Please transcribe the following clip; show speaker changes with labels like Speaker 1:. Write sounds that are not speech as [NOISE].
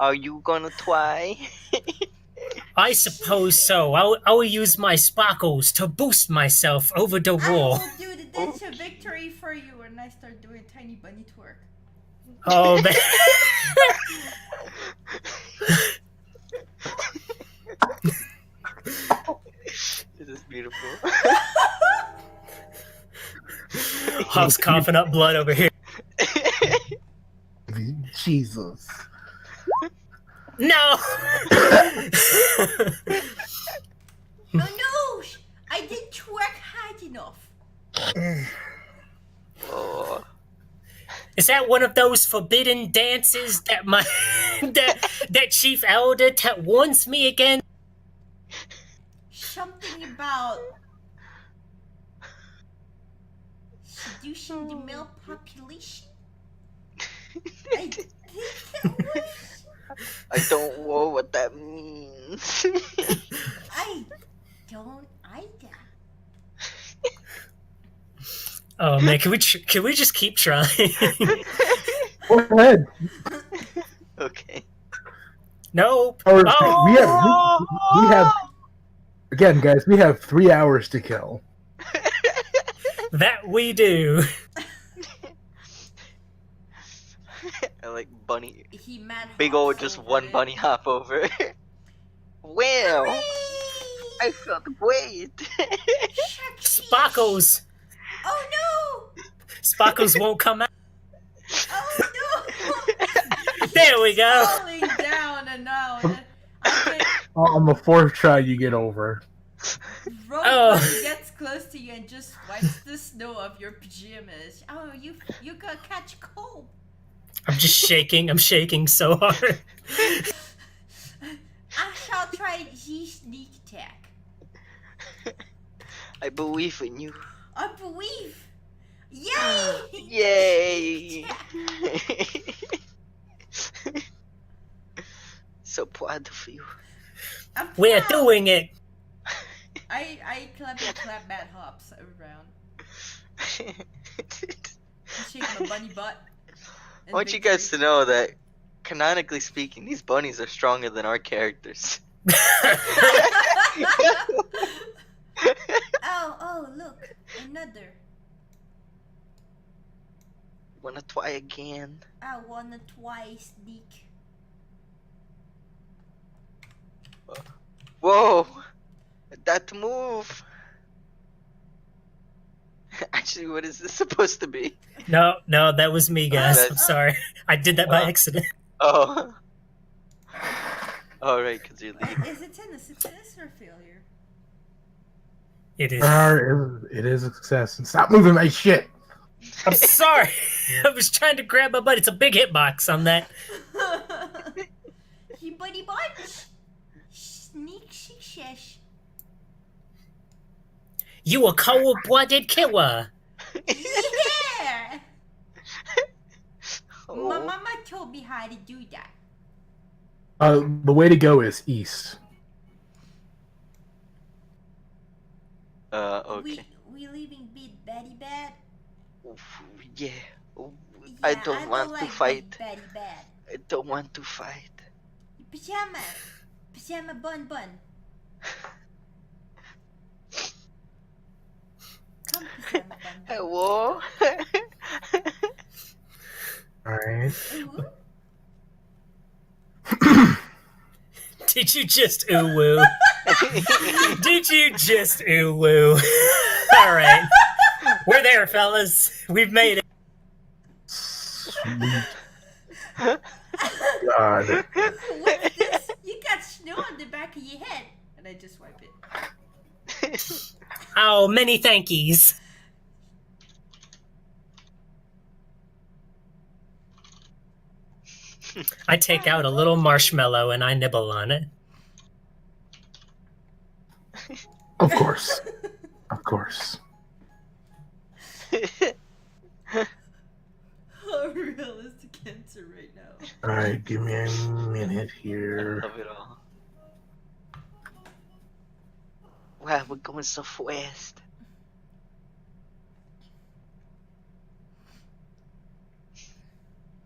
Speaker 1: Are you gonna try?
Speaker 2: I suppose so. I'll, I'll use my sparkles to boost myself over the
Speaker 3: I
Speaker 2: wall.
Speaker 3: will do the dance of victory for you when I start doing tiny bunny twerk.
Speaker 2: [LAUGHS] Oh [LAUGHS] man.
Speaker 1: [LAUGHS] this is beautiful. [LAUGHS]
Speaker 2: Hop's coughing up blood over here.
Speaker 4: Jesus.
Speaker 2: No! [LAUGHS]
Speaker 3: No, no! sh- I didn't twerk hard enough.
Speaker 1: oh,
Speaker 2: Is that one of those forbidden dances that my [LAUGHS] that that chief elder ta- warns me again?
Speaker 3: Something about seducing the male population. I think it was.
Speaker 1: I don't know what that means. [LAUGHS]
Speaker 3: I don't either.
Speaker 2: Oh man, can we tr- can we just keep trying? [LAUGHS]
Speaker 4: Go ahead.
Speaker 1: okay.
Speaker 2: nope.
Speaker 4: Our-
Speaker 2: Oh!
Speaker 4: We have we, we have again, guys. We have three hours to kill.
Speaker 2: That we do.
Speaker 1: [LAUGHS] I like bunny.
Speaker 3: He mad
Speaker 1: Big
Speaker 3: hops
Speaker 1: old just
Speaker 3: over
Speaker 1: one
Speaker 3: it.
Speaker 1: bunny hop over. [LAUGHS] well,
Speaker 3: Whee!
Speaker 1: I felt great. [LAUGHS]
Speaker 3: Shucks.
Speaker 2: Sparkles.
Speaker 3: Oh no!
Speaker 2: Sparkles won't come out.
Speaker 3: Oh no!
Speaker 2: There we go.
Speaker 3: Falling down and now and I get
Speaker 4: Uh, On the fourth try, you get over.
Speaker 3: Rogue
Speaker 2: Oh.
Speaker 3: Bunny gets close to you and just wipes the snow off your pajamas. Oh, you you gonna catch cold.
Speaker 2: I'm just shaking. I'm shaking so hard.
Speaker 3: I shall try the sneak attack.
Speaker 1: I believe in you.
Speaker 3: I believe. Yay! [LAUGHS]
Speaker 1: Yay! [LAUGHS] so proud of you.
Speaker 3: I'm
Speaker 2: We're
Speaker 3: proud.
Speaker 2: doing it.
Speaker 3: I I clap and clap Matt hops around.
Speaker 1: [LAUGHS]
Speaker 3: I Shake my bunny butt.
Speaker 1: I
Speaker 3: and
Speaker 1: want you
Speaker 3: victory.
Speaker 1: guys to know that, canonically speaking, these bunnies are stronger than our characters. [LAUGHS]
Speaker 3: [LAUGHS] oh oh look another.
Speaker 1: Wanna try again?
Speaker 3: I wanna twice
Speaker 1: [LAUGHS]
Speaker 3: sneak.
Speaker 1: Whoa! That move! [LAUGHS] Actually, what is this supposed to be?
Speaker 2: No, no, that was me, guys. I'm
Speaker 1: that's-
Speaker 2: sorry. I did that by
Speaker 1: Oh.
Speaker 2: accident. [LAUGHS]
Speaker 3: [LAUGHS]
Speaker 1: Oh. Alright, because you're
Speaker 3: Uh,
Speaker 1: leaving.
Speaker 3: Is it tennis? It's tennis or failure? [LAUGHS]
Speaker 2: It is.
Speaker 4: Arr, Uh, It is a success. And stop moving my shit.
Speaker 2: I'm sorry. [LAUGHS] I was trying to grab my butt. It's a big hitbox on that.
Speaker 3: he buddy bunch. Sneak success.
Speaker 2: You a cold blooded killer.
Speaker 1: [LAUGHS]
Speaker 3: Yeah. My
Speaker 1: Oh.
Speaker 3: [LAUGHS] mama told me how to do that.
Speaker 4: Uh, the way to go is east.
Speaker 1: [LAUGHS] Uh, okay.
Speaker 3: We we leaving Big Betty Bad.
Speaker 1: Oof, Yeah. Oof, I
Speaker 3: Yeah,
Speaker 1: don't want to
Speaker 3: like
Speaker 1: fight.
Speaker 3: Big Betty Bad.
Speaker 1: I don't want to fight.
Speaker 3: Pajama, pajama
Speaker 1: [LAUGHS]
Speaker 3: bun bun. Come pajama bun
Speaker 1: [LAUGHS]
Speaker 3: bun.
Speaker 1: Hello?
Speaker 3: [LAUGHS]
Speaker 4: All right.
Speaker 3: Ooh,
Speaker 2: Did you just ooh woo? Did you just ooh woo? [LAUGHS] All right. We're there, fellas. We've made it.
Speaker 4: Sweet God.
Speaker 3: What's this? You got snow on the back of your head. And I just wipe it. [LAUGHS]
Speaker 2: Oh, many thankies. I take out a little marshmallow and I nibble on it.
Speaker 4: Of course. Of course.
Speaker 3: How realistic answer right now.
Speaker 4: All right. Give me a minute
Speaker 1: I
Speaker 4: here.
Speaker 1: love it all. Wow, we're going so fast.